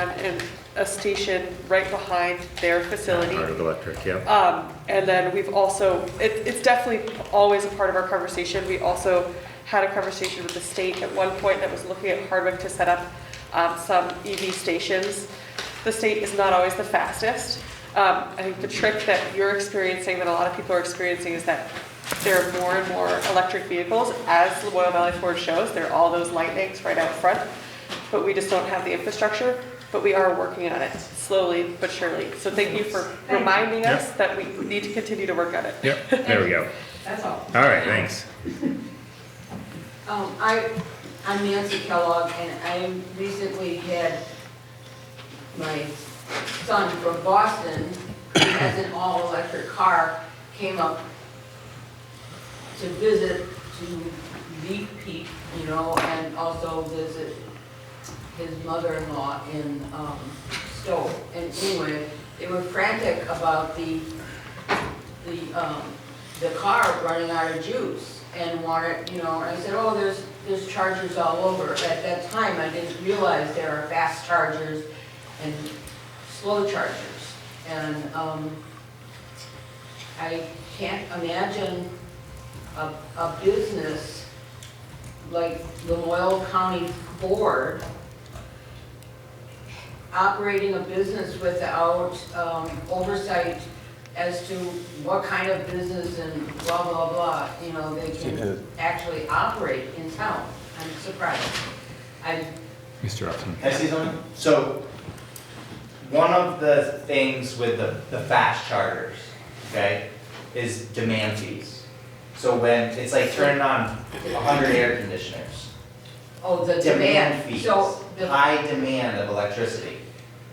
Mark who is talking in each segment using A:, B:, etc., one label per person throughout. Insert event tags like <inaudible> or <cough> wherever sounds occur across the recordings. A: and a station right behind their facility.
B: Part of electric, yeah.
A: Um, and then we've also, it, it's definitely always a part of our conversation. We also had a conversation with the state at one point that was looking at Hardwick to set up um, some EV stations. The state is not always the fastest. Um, I think the trick that you're experiencing, that a lot of people are experiencing, is that there are more and more electric vehicles. As the Loyola Valley Ford shows, there are all those lightnings right out front, but we just don't have the infrastructure. But we are working on it slowly but surely. So thank you for
C: you.
A: reminding
B: Yeah.
A: us that we need to continue to work on it.
B: Yep, there we go.
C: That's all.
B: All right, thanks.
C: Um, I, I'm Nancy Kellogg, and I recently had my son from Boston, who has an all-electric car, came up to visit, to meet Pete, you know, and also visit his mother-in-law in, um, Stowe. And anyway, they were frantic about the, the, um, the car running out of juice and wanted, you know, and I said, oh, there's, there's chargers all over. At that time, I didn't realize there are fast chargers and slow chargers. And, um, I can't imagine a, a business like the Loyal County Board operating a business without um, oversight as to what kind of business and blah, blah, blah, you know, they can actually operate in town. I'm surprised. I,
B: Mr. Upson.
D: Can I say something? So, one of the things with the, the fast chargers, okay, is demand fees. So when, it's like turning on a hundred air conditioners.
C: oh, the demand,
D: fees,
C: so, the
D: high demand of electricity.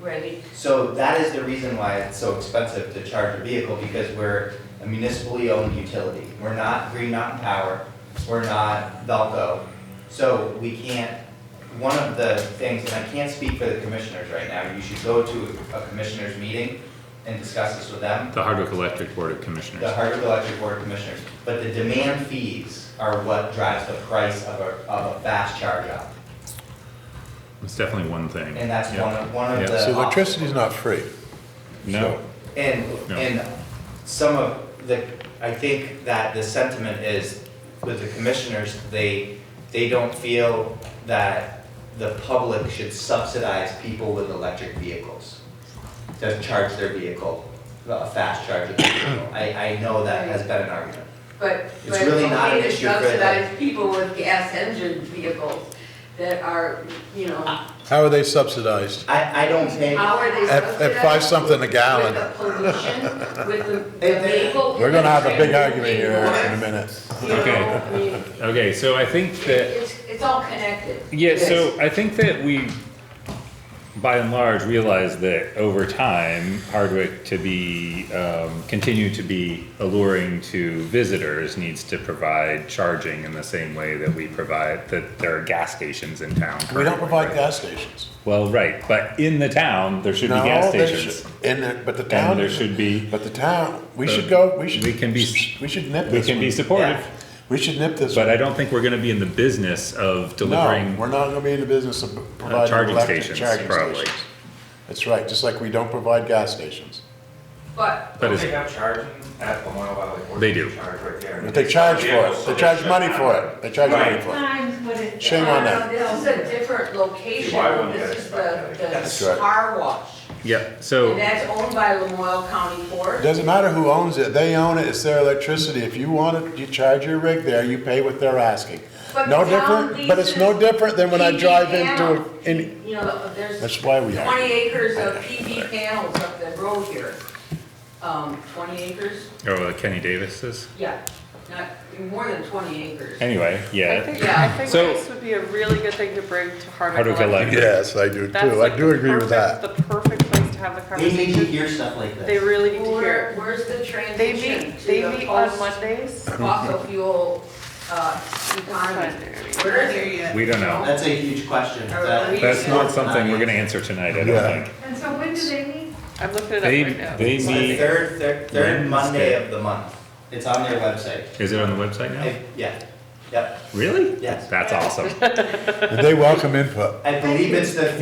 C: ready,
D: So that is the reason why it's so expensive to charge a vehicle, because we're a municipally owned utility. We're not Green Mountain Power, we're not Valco. So we can't, one of the things, and I can't speak for the commissioners right now, you should go to a commissioners meeting and discuss this with them,
B: The Hardwick Electric Board of Commissioners.
D: the Hardwick Electric Board of Commissioners. But the demand fees are what drives the price of a, of a fast charge up.
B: It's definitely one thing.
D: And that's
B: Yeah.
D: one of, one of
B: Yeah.
D: the.
E: So electricity's not free.
B: No,
D: And,
B: No.
D: and some of the, I think that the sentiment is with the commissioners, they, they don't feel that the public should subsidize people with electric vehicles to charge their vehicle, a fast charger vehicle. I, I know that has been an argument.
C: but,
D: It's
C: but
D: really not
C: okay
D: an
C: to
D: issue for the-
C: subsidize people with gas engine vehicles that are, you know,
E: How are they subsidized?
D: I, I don't think,
C: how are they
E: At-
C: subsidized?
E: at five something a gallon.
C: With the pollution, with the-
D: <laughs>
C: the
D: If they-
C: vehicle.
E: We're gonna have a big argument here in a
C: Anymore,
E: minute.
C: you know,
B: Okay.
C: I mean,
B: okay, so I think that
C: It's, it's all connected.
B: Yeah, so I think that we, by and large, realize that over time, Hardwick to be, um, continue to be alluring to visitors needs to provide charging in the same way that we provide, that there are gas stations in town.
E: We don't
B: currently,
E: provide
B: right?
E: gas stations.
B: Well, right, but in the town, there should be
E: No,
B: gas
E: they
B: stations.
E: should- And there, but the town.
B: And there should be,
E: But the town, we
B: Uh,
E: should go, we should.
B: we can be-
E: We should nip this.
B: we can be
E: one.
B: supportive,
D: Yeah.
E: We should nip this.
B: but
E: one.
B: I don't think we're gonna be in the business of delivering. Uh,
E: No, we're not gonna be in the business of providing
B: charging
E: electric
B: stations,
E: charging
B: probably.
E: stations. That's right, just like we don't provide gas stations.
C: But
B: But
F: Don't
B: is-
F: they have charging at the Moyle Valley Ford?
B: They do.
F: Charge right there.
E: But they charge for
F: Yeah,
E: it,
F: so
E: they charge
F: should
E: money
F: have
E: for
F: that.
E: it, they charge money
F: Right.
E: for it.
G: times what it.
E: Shame on
C: No,
E: them.
C: no, This is a different location.
F: Why wouldn't you
C: This is
F: expect that?
E: That's Oh.
C: the, the
E: right.
C: car wash.
B: Yep, so.
C: And that's owned by Lamoille County Ford.
E: Doesn't matter who owns it, they own it, it's their electricity. If you want it, you charge your rig there, you pay what they're asking.
C: But
E: No
C: the town
E: different, but it's no
C: leases
E: different than when I
C: PV
E: drive into,
C: panels.
E: any,
C: You know, there's
E: that's why we
C: twenty
E: are.
C: acres of PV panels up the road here. Um, twenty acres?
B: Oh, Kenny Davis's?
C: Yeah, not, more than twenty acres.
B: Anyway,
A: I
B: yeah,
A: think, I think
B: So-
A: this would be a really good thing to bring to Hardwick
B: Hardwick
A: Electric.
B: Electric.
E: Yes, I do
A: That's
E: too,
A: like
E: I do
A: the
E: agree with
A: perfect-
E: that.
A: The perfect place to have the
D: they need to
A: conversation.
D: hear stuff like this.
A: They really need to
C: Where,
A: hear.
C: where's the
A: They
C: transition
A: meet,
C: to
A: they
C: the
A: meet on
C: post-
A: Mondays.
C: fossil fuel, uh, economy? Where is it?
B: we don't know.
D: That's a huge question.
C: Are
D: that-
C: we-
B: That's not something we're gonna answer tonight, I
E: Yeah.
B: don't think.
G: And so when do they meet?
A: I'm looking it up
B: They,
A: right now.
B: they
D: It's the
B: meet,
D: third, third, third Monday of the month. It's on their website.
B: is it on the website now?
D: I- Yeah, yep,
B: Really?
D: yes.
B: That's awesome.
E: And they welcome input.
D: I believe it's the